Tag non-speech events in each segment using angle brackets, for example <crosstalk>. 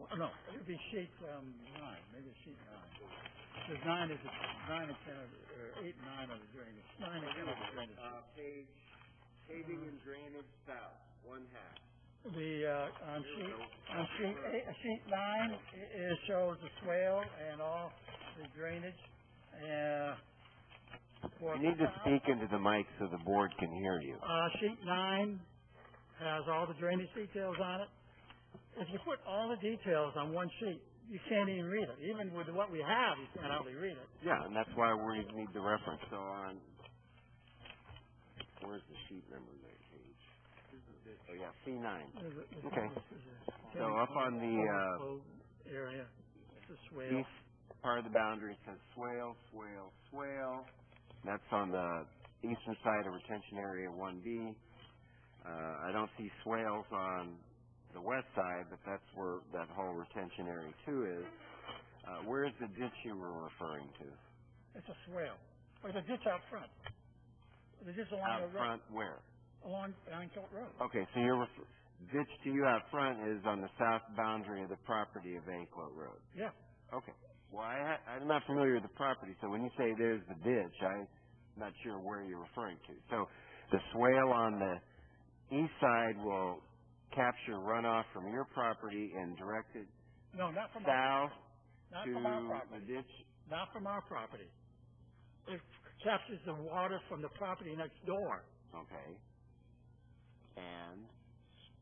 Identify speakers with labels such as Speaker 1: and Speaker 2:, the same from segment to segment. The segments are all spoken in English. Speaker 1: would be sheet, um, nine, maybe sheet nine. Because nine is, nine and ten, are- or eight and nine are doing this, nine and ten are doing this.
Speaker 2: Uh, page, paving and drainage south, one half.
Speaker 1: The, uh, on sheet, on sheet eight, uh, sheet nine, i- it shows the swale and all the drainage, uh. for
Speaker 2: You need to
Speaker 1: south.
Speaker 2: speak into the mic so the board can hear you.
Speaker 1: Uh, sheet nine has all the drainage details on it. If you put all the details on one sheet, you can't even read it. Even with what we have, you can't hardly read it.
Speaker 2: Yeah, and that's why we need the reference, so on, where's the sheet number on that page? Oh, yeah, C nine.
Speaker 1: There's a- there's a-
Speaker 2: Okay.
Speaker 1: there's a-
Speaker 2: So up on the, uh,
Speaker 1: overflow Area, it's a swale.
Speaker 2: east part of the boundary, it says swale, swale, swale. That's on the eastern side of retention area one B. Uh, I don't see swales on the west side, but that's where that whole retention area two is. Uh, where's the ditch you were referring to?
Speaker 1: It's a swale. Or the ditch out front. The ditch along
Speaker 2: Out
Speaker 1: the road,
Speaker 2: front, where?
Speaker 1: along Anfield Road.
Speaker 2: Okay, so your ref- ditch to you out front is on the south boundary of the property of Anklo Road.
Speaker 1: Yeah.
Speaker 2: Okay. Well, I ha- I'm not familiar with the property, so when you say there's the ditch, I'm not sure where you're referring to. So the swale on the east side will capture runoff from your property and direct it
Speaker 1: No, not from our,
Speaker 2: south
Speaker 1: not
Speaker 2: to
Speaker 1: from our
Speaker 2: the
Speaker 1: property.
Speaker 2: ditch.
Speaker 1: Not from our property. It captures the water from the property next door.
Speaker 2: Okay. And,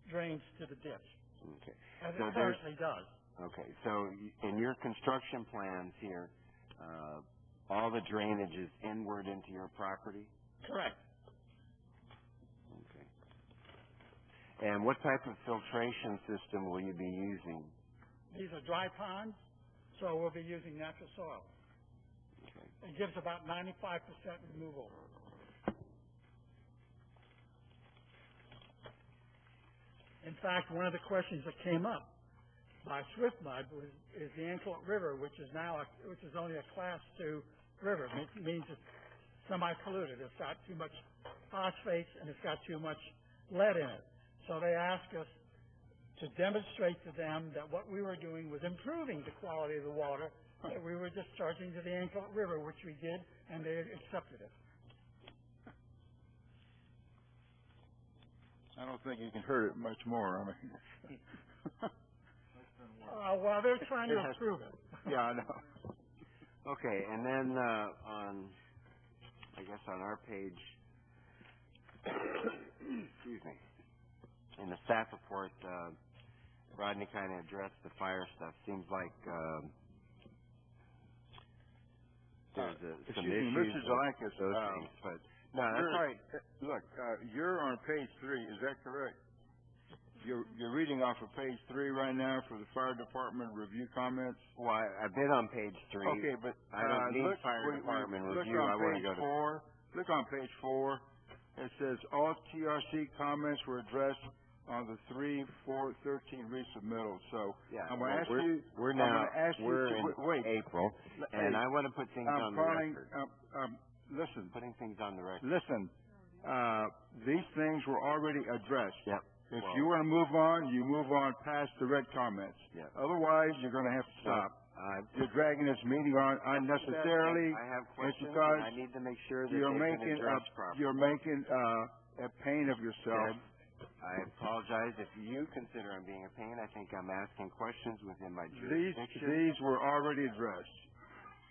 Speaker 1: drains to the ditch,
Speaker 2: okay.
Speaker 1: as it
Speaker 2: So there's-
Speaker 1: currently does.
Speaker 2: Okay, so y- in your construction plans here, uh, all the drainage is inward into your property?
Speaker 1: Correct.
Speaker 2: Okay. And what type of filtration system will you be using?
Speaker 1: These are dry ponds, so we'll be using natural soil.
Speaker 2: Okay.
Speaker 1: It gives about ninety-five percent removal. In fact, one of the questions that came up by Swift Mud was, is the Anklet River, which is now, a- which is only a class two river, It means it's semi-polluted, it's got too much phosphates and it's got too much lead in it. So they asked us to demonstrate to them that what we were doing was improving the quality of the water that we were discharging to the Anklet River, which we did, and they accepted it.
Speaker 3: I don't think you can hurt it much more, I mean.
Speaker 1: <laughs> Uh, well, they're trying to
Speaker 2: It has-
Speaker 1: improve it.
Speaker 3: <laughs> Yeah, I know.
Speaker 2: Okay, and then, uh, on, I guess on our page, <coughs> excuse me, in the staff report, uh, Rodney kinda addressed the fire stuff. Seems like, um, there's a,
Speaker 3: Uh, Excuse
Speaker 2: some
Speaker 3: me,
Speaker 2: issues.
Speaker 3: Mr.
Speaker 2: with
Speaker 3: Zalakis,
Speaker 2: Those
Speaker 3: um,
Speaker 2: things, but, no, that's
Speaker 3: you're-
Speaker 2: all right.
Speaker 3: Look, uh, you're on page three, is that correct? You're, you're reading off of page three right now for the fire department review comments?
Speaker 2: Well, I- I've been on page three.
Speaker 3: Okay, but,
Speaker 2: I don't
Speaker 3: uh,
Speaker 2: need
Speaker 3: look-
Speaker 2: fire
Speaker 3: wait, wait,
Speaker 2: department
Speaker 3: look
Speaker 2: review.
Speaker 3: on
Speaker 2: I wanna
Speaker 3: page
Speaker 2: go to-
Speaker 3: four. Look on page four, it says, all TRC comments were addressed on the three, four, thirteen resubmittals, so
Speaker 2: Yeah,
Speaker 3: I'm
Speaker 2: well,
Speaker 3: gonna ask
Speaker 2: we're-
Speaker 3: you,
Speaker 2: We're
Speaker 3: I'm
Speaker 2: now,
Speaker 3: gonna ask you
Speaker 2: we're
Speaker 3: to-
Speaker 2: in
Speaker 3: wait, wait.
Speaker 2: April,
Speaker 3: L-
Speaker 2: and
Speaker 3: hey,
Speaker 2: I want to put things on
Speaker 3: I'm
Speaker 2: the
Speaker 3: calling,
Speaker 2: record.
Speaker 3: um, um, listen,
Speaker 2: Putting things on the record.
Speaker 3: listen, uh, these things were already addressed.
Speaker 2: Yep.
Speaker 3: If
Speaker 2: Well-
Speaker 3: you wanna move on, you move on past direct comments.
Speaker 2: Yep.
Speaker 3: Otherwise, you're gonna have to
Speaker 2: So,
Speaker 3: stop.
Speaker 2: I-
Speaker 3: You're dragging this meeting on unnecessarily.
Speaker 2: I have questions, and
Speaker 3: because
Speaker 2: I need to make sure that
Speaker 3: You're
Speaker 2: they've been
Speaker 3: making, uh,
Speaker 2: addressed properly.
Speaker 3: you're making, uh, a pain of yourself.
Speaker 2: Judge, I apologize if you consider I'm being a pain. I think I'm asking questions within my
Speaker 3: These,
Speaker 2: jurisdiction.
Speaker 3: these were already addressed.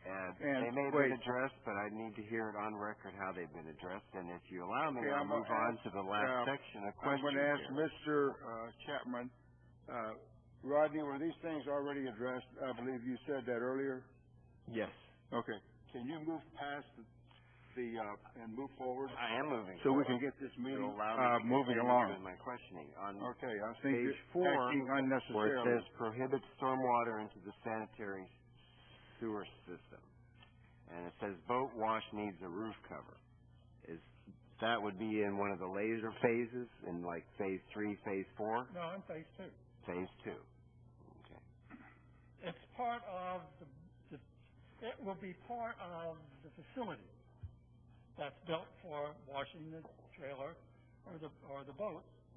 Speaker 2: And
Speaker 3: and
Speaker 2: they may have
Speaker 3: wait.
Speaker 2: been addressed, but I need to hear it on record how they've been addressed. And if you allow me,
Speaker 3: Okay,
Speaker 2: I'll
Speaker 3: I'm gonna
Speaker 2: move on
Speaker 3: ask,
Speaker 2: to the
Speaker 3: uh,
Speaker 2: last section of
Speaker 3: I'm
Speaker 2: questions
Speaker 3: gonna ask
Speaker 2: here.
Speaker 3: Mr. uh, Chapman, uh, Rodney, were these things already addressed? I believe you said that earlier.
Speaker 2: Yes.
Speaker 3: Okay. Can you move past the- the, uh, and move forward?
Speaker 2: I am moving
Speaker 3: So we
Speaker 2: forward.
Speaker 3: can get this
Speaker 2: You'll
Speaker 3: meeting,
Speaker 2: allow me
Speaker 3: uh,
Speaker 2: to
Speaker 3: moving
Speaker 2: continue with
Speaker 3: along.
Speaker 2: My questioning on
Speaker 3: Okay, I think
Speaker 2: Page
Speaker 3: you're
Speaker 2: four,
Speaker 3: acting
Speaker 2: where it says
Speaker 3: unnecessarily.
Speaker 2: prohibits stormwater into the sanitary sewer system. And it says boat wash needs a roof cover. Is, that would be in one of the later phases, in like phase three, phase four,
Speaker 1: No, in phase two.
Speaker 2: phase two. Okay.
Speaker 1: It's part of the, the, it will be part of the facility that's built for washing the trailer or the, or the boat